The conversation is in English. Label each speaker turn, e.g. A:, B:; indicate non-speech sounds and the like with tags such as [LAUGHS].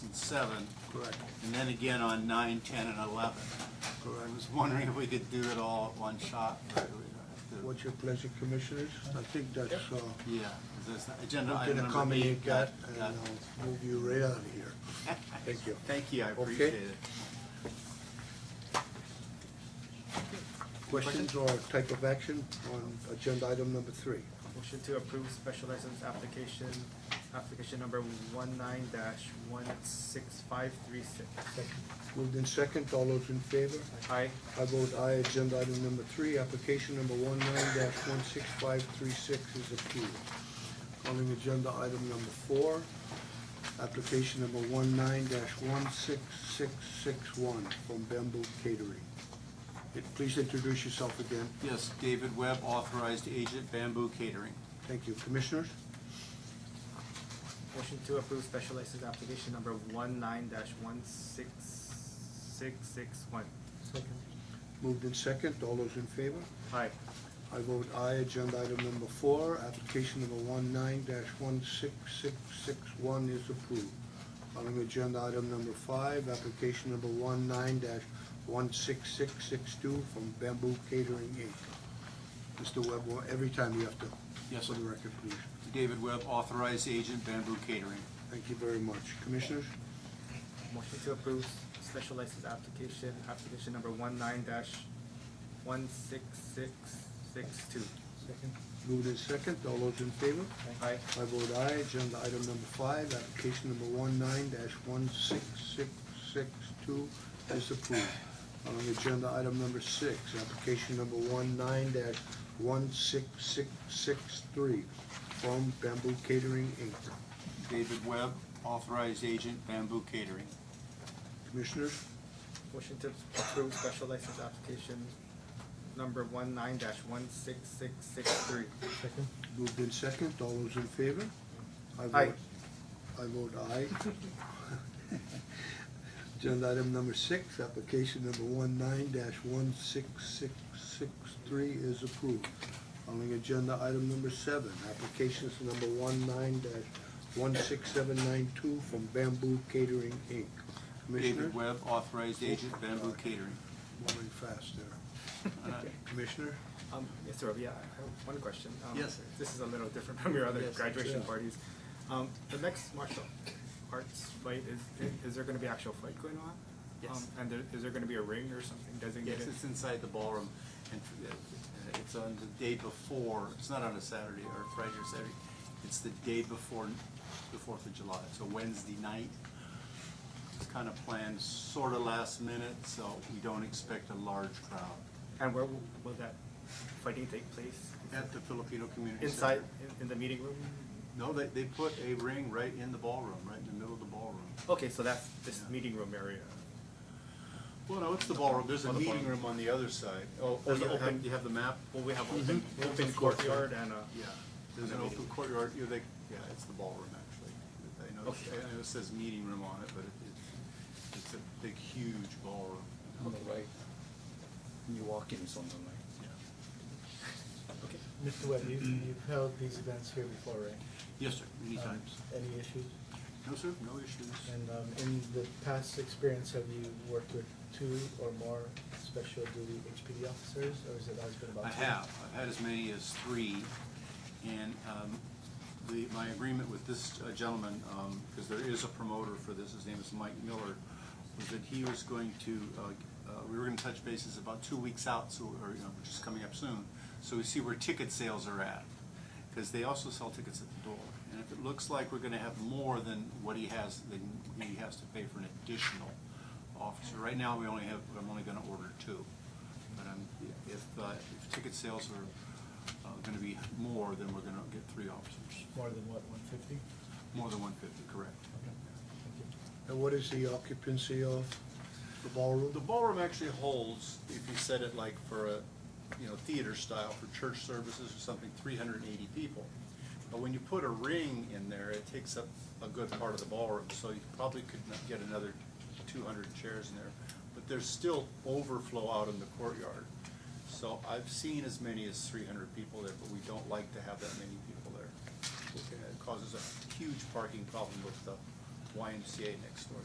A: seven,
B: Correct,
A: and then again on nine, ten, and eleven. I
B: correct.
A: was wondering if we could do it all at one shot. but we don't have to-
B: What's your pleasure, commissioners? I think that's, uh,
A: Yeah, 'cause that's the agenda
B: I'm
A: item
B: gonna
A: number eight.
B: accommodate that
A: got-
B: and
A: got-
B: I'll move you right out of here. Uh, Thank you.
A: Thank you, I
B: Okay.
A: appreciate it.
B: Questions or type of action on agenda item number three?
C: Motion to approve special license application, application number one nine dash one six five three six.
B: Moved in second, all those in favor?
C: Aye.
B: I vote aye, agenda item number three, application number one one six five three six is approved. Calling agenda item number four, application number one one six six six one from Bamboo Catering. Eh, Please introduce yourself again,
A: Yes, David Webb, authorized agent, Bamboo Catering.
B: thank you. Commissioners,
C: Motion to approve special license application number one nine dash one six six six one.
B: moved in second, all those in favor?
C: Aye.
B: I vote aye, agenda item number four, application number one one six six six one is approved. Calling agenda item number five, application number one one six six six two from Bamboo Catering Inc. Mr. Webb, well, every time you have to.
A: Yes,
B: For
A: sir.
B: the record, please.
A: David Webb, authorized agent, Bamboo Catering.
B: Thank you very much. Commissioners,
C: Motion to approve special license application, application number one nine dash one six six six two.
B: moved in second, all those in favor?
C: Aye.
B: I vote aye, agenda item number five, application number one one six six six two is approved. On agenda item number six, application number one one six six six three from Bamboo Catering Inc.
A: David Webb, authorized agent, Bamboo Catering.
B: Commissioners,
C: Motion to approve special license application number one nine dash one six six six three.
B: moved in second, all those in favor? I
C: Aye.
B: vote. I vote aye. Agenda item number six, application number one one six six six three is approved. Calling agenda item number seven, applications number one one six seven nine two from Bamboo Catering Inc. Commissioner,
A: David Webb, authorized agent, Bamboo Catering.
B: moving fast there.
D: [LAUGHS]
A: Uh,
B: Commissioner?
C: Um, yes, sir, yeah, I have one question. Um,
A: Yes.
C: This is a little different [LAUGHS] from your other
A: Yes.
C: graduation
B: Yeah.
C: parties. Um, the next martial arts fight, is, is there gonna be actual fight going on?
A: Yes.
C: Um, And there, is there gonna be a ring or something
A: Yes,
C: designated?
A: it's inside the ballroom, and uh, it's on the day before, it's not on a Saturday or Friday or Saturday, it's the day before the Fourth of July, so Wednesday night. It's kind of planned sort of last minute, so we don't expect a large crowd.
C: And where will, will that fighting take place?
A: At the Filipino Community
C: Inside,
A: Center.
C: in, in the meeting room?
A: No, they, they put a ring right in the ballroom, right in the middle of the ballroom.
C: Okay, so that's this
A: Yeah.
C: meeting room area.
A: Well, no, it's the ballroom, there's a
C: Oh, the
A: meeting
C: ballroom.
A: room on the other side. Oh, oh,
C: There's
A: you
C: an
A: have,
C: open-
A: you have the map?
C: Will we have open,
B: Mhm.
C: open courtyard and a?
A: Mm-hmm. Yeah, there's an
C: And a
A: open
C: meeting.
A: courtyard, you know, they, yeah, it's the ballroom, actually. I know,
C: Okay.
A: I know it says meeting room on it, but it- it's, it's a big, huge ballroom.
E: on the right. When you walk in, it's on the right.
A: Yeah.
C: Okay.
D: Mr. Webb, you- you've held these events here before, right?
A: Yes, sir, many
D: Um,
A: times.
D: Any issues?
A: No, sir, no issues.
D: And um, in the past experience, have you worked with two or more special duty HPD officers, or has it always been about
A: I
D: two?
A: have, I've had as many as three, and, um, the, my agreement with this uh, gentleman, um, because there is a promoter for this, his name is Mike Miller, was that he was going to, uh, uh, we were gonna touch bases about two weeks out, so, or, you know, which is coming up soon, so we see where ticket sales are at, because they also sell tickets at the door, and if it looks like we're gonna have more than what he has, then he has to pay for an additional officer. Right now, we only have, I'm only gonna order two. But I'm, if, uh, if ticket sales are, uh, gonna be more, then we're gonna get three officers,
D: More than what, one fifty?
A: more than one fifty, correct.
B: And what is the occupancy of the ballroom?
A: The ballroom actually holds, if you set it like for a, you know, theater style, for church services or something, three hundred and eighty people. But when you put a ring in there, it takes up a good part of the ballroom, so you probably could not get another two hundred chairs in there. But there's still overflow out in the courtyard. So I've seen as many as three hundred people there, but we don't like to have that many people there. It causes a huge parking problem with the YMCA next door.